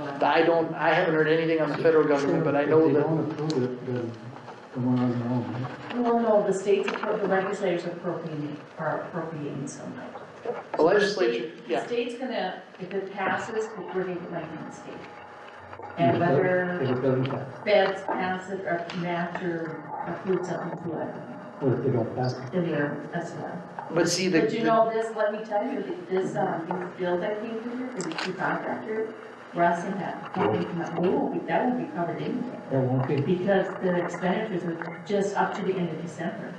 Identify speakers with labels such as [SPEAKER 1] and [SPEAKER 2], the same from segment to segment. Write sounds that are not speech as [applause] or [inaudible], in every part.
[SPEAKER 1] I don't, I haven't heard anything on the federal government, but I know
[SPEAKER 2] If they
[SPEAKER 1] that,
[SPEAKER 2] don't approve it, then the one on their own.
[SPEAKER 3] Well, no, the states, appro- the legislators appropriating, are appropriating so much.
[SPEAKER 1] the legislature, yeah,
[SPEAKER 3] The state's gonna, if it passes, we're gonna get money from the state. And whether
[SPEAKER 2] If it doesn't pass,
[SPEAKER 3] feds pass it or match or approve something to it,
[SPEAKER 2] or if they don't pass it.
[SPEAKER 3] then they're, that's what.
[SPEAKER 1] but see, the,
[SPEAKER 3] But you know this, let me tell you, that this, um, this bill that came through here for the two contractor, Russ and that, we won't be, that won't be covered anyway.
[SPEAKER 2] There won't be.
[SPEAKER 3] Because the expenditures are just up to the end of December,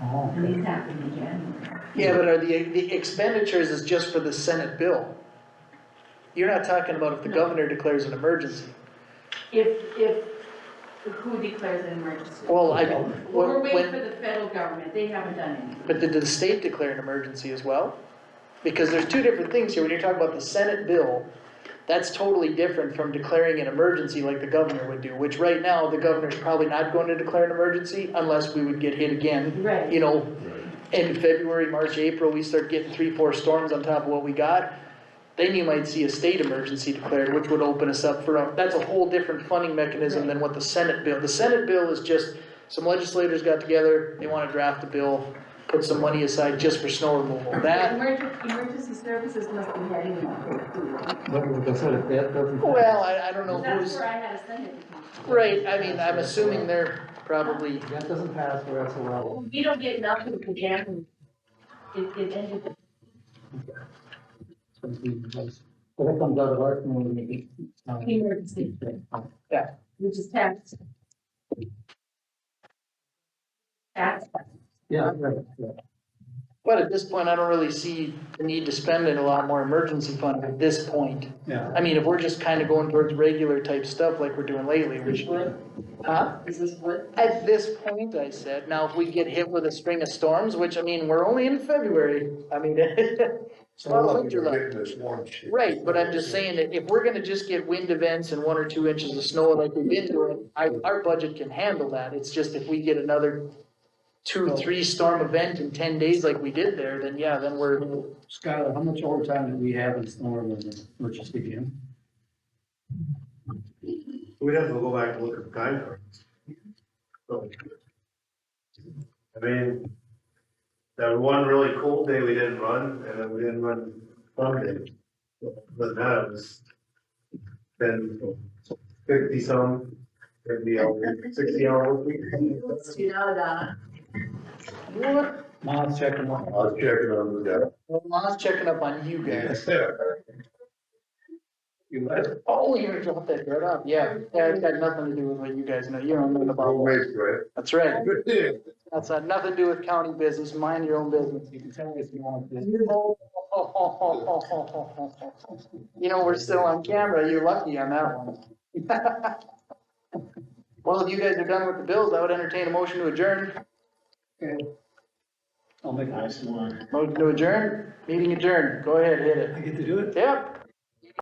[SPEAKER 2] Oh,
[SPEAKER 3] and
[SPEAKER 2] okay.
[SPEAKER 3] these happen in January.
[SPEAKER 1] yeah, but are the, the expenditures is just for the Senate bill. You're not talking about if the
[SPEAKER 3] No.
[SPEAKER 1] governor declares an emergency.
[SPEAKER 3] If, if, who declares an emergency?
[SPEAKER 1] Well, I,
[SPEAKER 3] Well, we're waiting
[SPEAKER 1] when,
[SPEAKER 3] for the federal government, they haven't done anything.
[SPEAKER 1] but did the state declare an emergency as well? Because there's two different things here, when you're talking about the Senate bill, that's totally different from declaring an emergency like the governor would do, which right now, the governor's probably not going to declare an emergency unless we would get hit again, you
[SPEAKER 3] Right,
[SPEAKER 1] know, in February, March, April, we start getting three, four storms on top of what we got, then you might see a state emergency declared, which would open us up for, a- that's a whole different funding mechanism than what the Senate bill. The Senate bill is just, some legislators got together, they wanna draft a bill, put some money aside just for snow removal. That,
[SPEAKER 3] Emergen- emergency services must be heading in for approval.
[SPEAKER 2] But like I said, if that doesn't. pass,
[SPEAKER 1] well, I, I don't know
[SPEAKER 3] That's
[SPEAKER 1] who's,
[SPEAKER 3] where I had to send it. because
[SPEAKER 1] right, I mean, I'm assuming they're probably,
[SPEAKER 2] If that doesn't pass, we're at the level.
[SPEAKER 3] We don't get nothing for January. It, it ended,
[SPEAKER 2] But that comes out of our community. um,
[SPEAKER 3] emergency, which is tax. Tax,
[SPEAKER 2] Yeah, right, yeah.
[SPEAKER 1] but at this point, I don't really see the need to spend it a lot more emergency fund at this point.
[SPEAKER 2] Yeah.
[SPEAKER 1] I mean, if we're just kinda going towards regular type stuff like we're doing lately, we should, huh?
[SPEAKER 3] is this what?
[SPEAKER 1] At this point, I said, now if we get hit with a string of storms, which I mean, we're only in February, I mean, [laughs] it's
[SPEAKER 4] So
[SPEAKER 1] not
[SPEAKER 4] we're
[SPEAKER 1] winter
[SPEAKER 4] looking
[SPEAKER 1] like.
[SPEAKER 4] at this one shit.
[SPEAKER 1] Right, but I'm just saying that if we're gonna just get wind events and one or two inches of snow like we've been doing, I, our budget can handle that. It's just if we get another two, three storm event in ten days like we did there, then yeah, then we're,
[SPEAKER 2] Skylar, how much overtime do we have in snow removal, which is again?
[SPEAKER 5] We'd have to go back and look at the time cards. So, I mean, that one really cold day we didn't run, and then we didn't run some days. But that was then fifty some, fifty hours, sixty hours.
[SPEAKER 3] You know, Donna.
[SPEAKER 1] well,
[SPEAKER 2] Mom's checking on.
[SPEAKER 4] I was checking on the
[SPEAKER 1] I was checking up on you
[SPEAKER 5] [laughs]
[SPEAKER 1] guys.
[SPEAKER 2] You
[SPEAKER 1] Oh, you're gonna drop that right off, yeah. Yeah, it's got nothing to do with what you guys know, you don't know about.
[SPEAKER 4] Wrong ways, right?
[SPEAKER 1] That's right.
[SPEAKER 4] Yeah.
[SPEAKER 1] That's had nothing to do with county business, mind your own business.
[SPEAKER 2] can tell me if you want this.
[SPEAKER 1] You know, we're still on camera, you're lucky on that one. [laughs] Well, if you guys are done with the bills, I would entertain a motion to adjourn.
[SPEAKER 2] Okay. I'll make a nice one.
[SPEAKER 1] Motion to adjourn, meeting adjourned, go ahead, hit it.
[SPEAKER 2] I get to do it?
[SPEAKER 1] Yep,